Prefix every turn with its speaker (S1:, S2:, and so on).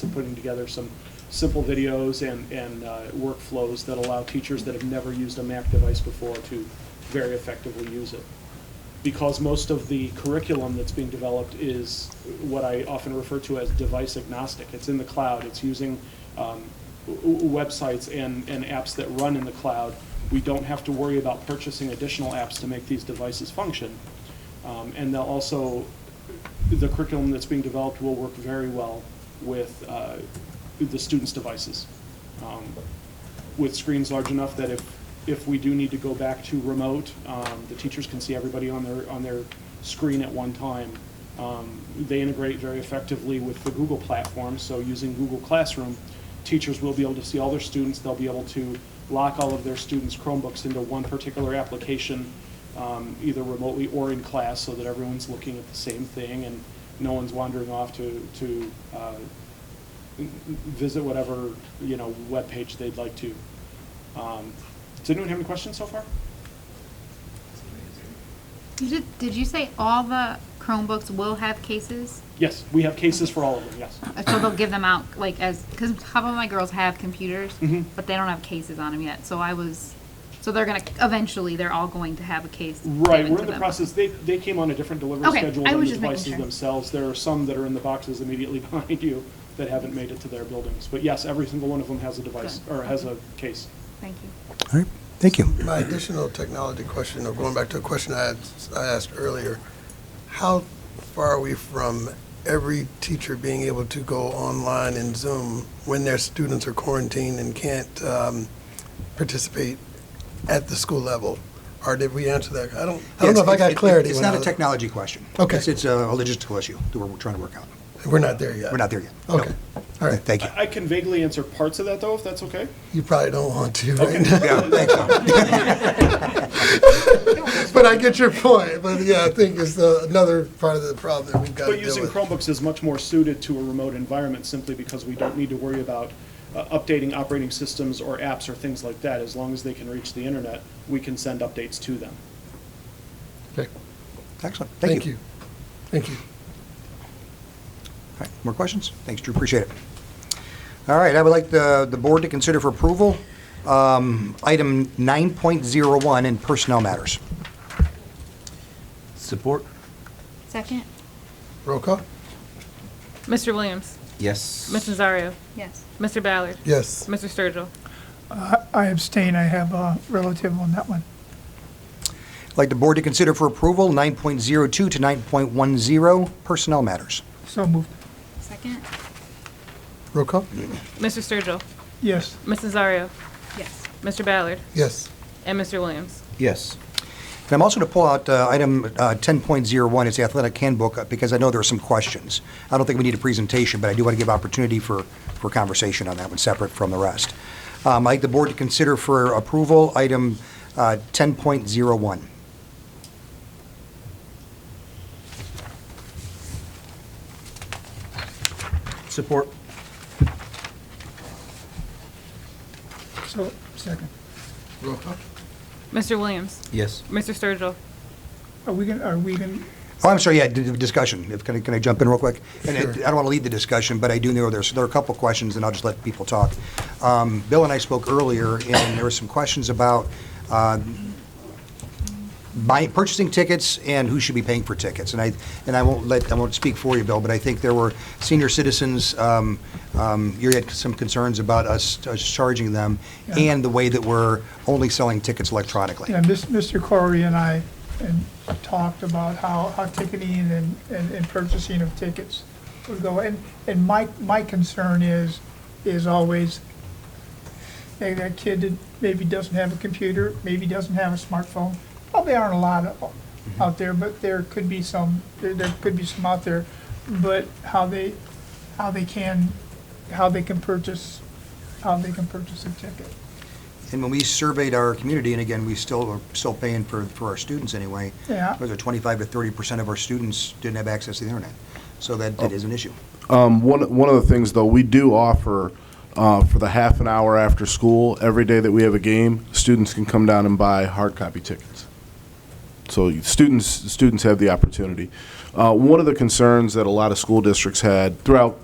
S1: to putting together some simple videos and, and uh, workflows that allow teachers that have never used a Mac device before to very effectively use it. Because most of the curriculum that's being developed is what I often refer to as device agnostic. It's in the cloud, it's using um, w- w- websites and, and apps that run in the cloud. We don't have to worry about purchasing additional apps to make these devices function. Um, And they'll also, the curriculum that's being developed will work very well with uh, the students' devices, um, with screens large enough that if, if we do need to go back to remote, um, the teachers can see everybody on their, on their screen at one time. Um, They integrate very effectively with the Google platform, so using Google Classroom, teachers will be able to see all their students, they'll be able to lock all of their students' Chromebooks into one particular application, um, either remotely or in class, so that everyone's looking at the same thing and no one's wandering off to, to uh, visit whatever, you know, webpage they'd like to. Um, Does anyone have any questions so far?
S2: You did, did you say all the Chromebooks will have cases?
S1: Yes, we have cases for all of them, yes.
S2: Uh, So they'll give them out like as, because a couple of my girls have computers,
S1: Mhm.
S2: but they don't have cases on them yet. So I was, so they're gonna, eventually, they're all going to have a case.
S1: Right,
S2: given
S1: we're
S2: to
S1: in the
S2: them.
S1: process, they, they came on a different delivery
S2: Okay,
S1: schedule
S2: I
S1: than the
S2: was just making
S1: devices
S2: sure.
S1: themselves. There are some that are in the boxes immediately behind you that haven't made it to their buildings. But yes, every single one of them has a device,
S2: Good.
S1: or has a case.
S2: Thank you.
S3: All right, thank you.
S4: My additional technology question, or going back to a question I had, I asked earlier, how far are we from every teacher being able to go online and Zoom when their students are quarantined and can't um, participate at the school level? Or did we answer that? I don't, I don't know if I
S3: Yes, it-
S4: got
S3: it-
S4: clarity.
S3: It's
S4: when
S3: not
S4: I
S3: a
S4: was-
S3: technology question.
S4: Okay.
S3: It's, it's a logistical issue that we're trying to work out.
S4: We're not there yet.
S3: We're not there yet. No.
S4: Okay, all right.
S3: Thank you.
S1: I I can vaguely answer parts of that, though, if that's okay?
S4: You probably don't want to, right?
S3: Yeah, thanks.
S4: But I get your point, but yeah, I think it's the- another part of the problem that we've got to
S1: But
S4: deal with.
S1: using Chromebooks is much more suited to a remote environment simply because we don't need to worry about uh, updating operating systems or apps or things like that. As long as they can reach the internet, we can send updates to them.
S4: Okay.
S3: Excellent,
S4: Thank you. Thank you.
S3: All right, More questions? Thanks, Drew, appreciate it. All right, I would like the, the board to consider for approval, um, item 9.01 in personnel matters.
S5: Support?
S2: Second?
S4: Roll call?
S6: Mr. Williams.
S5: Yes.
S6: Ms. Nazario.
S2: Yes.
S6: Mr. Ballard.
S4: Yes.
S6: Mr. Sturgill.
S7: I- I abstain, I have a relative on that one.
S3: I'd like the board to consider for approval 9.02 to 9.10 personnel matters.
S7: So moved.
S2: Second?
S4: Roll call?
S6: Mr. Sturgill.
S7: Yes,
S6: Ms. Nazario.
S2: Yes.
S6: Mr. Ballard.
S4: Yes.
S6: And Mr. Williams.
S5: Yes.
S3: And I'm also going to pull out uh, item uh, 10.01, it's the athletic handbook, uh, because I know there are some questions. I don't think we need a presentation, but I do want to give opportunity for, for conversation on that one, separate from the rest. Um, I'd like the board to consider for approval item uh, 10.01.
S5: Support?
S7: so, second.
S4: Roll call?
S6: Mr. Williams.
S5: Yes.
S6: Mr. Sturgill.
S7: Are we gonna, are we gonna,
S3: Oh, I'm sorry, yeah, d- d- discussion, if, can I, can I jump in real quick? And I I
S4: Sure.
S3: don't want to lead the discussion, but I do know there's, there are a couple questions, and I'll just let people talk. Um, Bill and I spoke earlier, and there were some questions about um, buying, purchasing tickets and who should be paying for tickets. And I, and I won't let, I won't speak for you, Bill, but I think there were senior citizens, um, um, you had some concerns about us us charging them,
S7: Yeah.
S3: and the way that we're only selling tickets electronically.
S7: yeah, Mis- Mr. Corey and I and talked about how, how ticketing and, and and purchasing of tickets would go. And, and my, my concern is, is always, hey, that kid that maybe doesn't have a computer, maybe doesn't have a smartphone. Probably aren't a lot of them out there, but there could be some, there, there could be some out there. But how they, how they can, how they can purchase, how they can purchase a ticket.
S3: And when we surveyed our community, and again, we still are still paying for, for our students anyway.
S7: Yeah.
S3: Was it 25 to 30 percent of our students didn't have access to the internet? So that, that is an issue.
S8: Um, one, one of the things, though, we do offer uh, for the half an hour after school, every day that we have a game, students can come down and buy hard copy tickets. So you- students, students have the opportunity. Uh, one of the concerns that a lot of school districts had throughout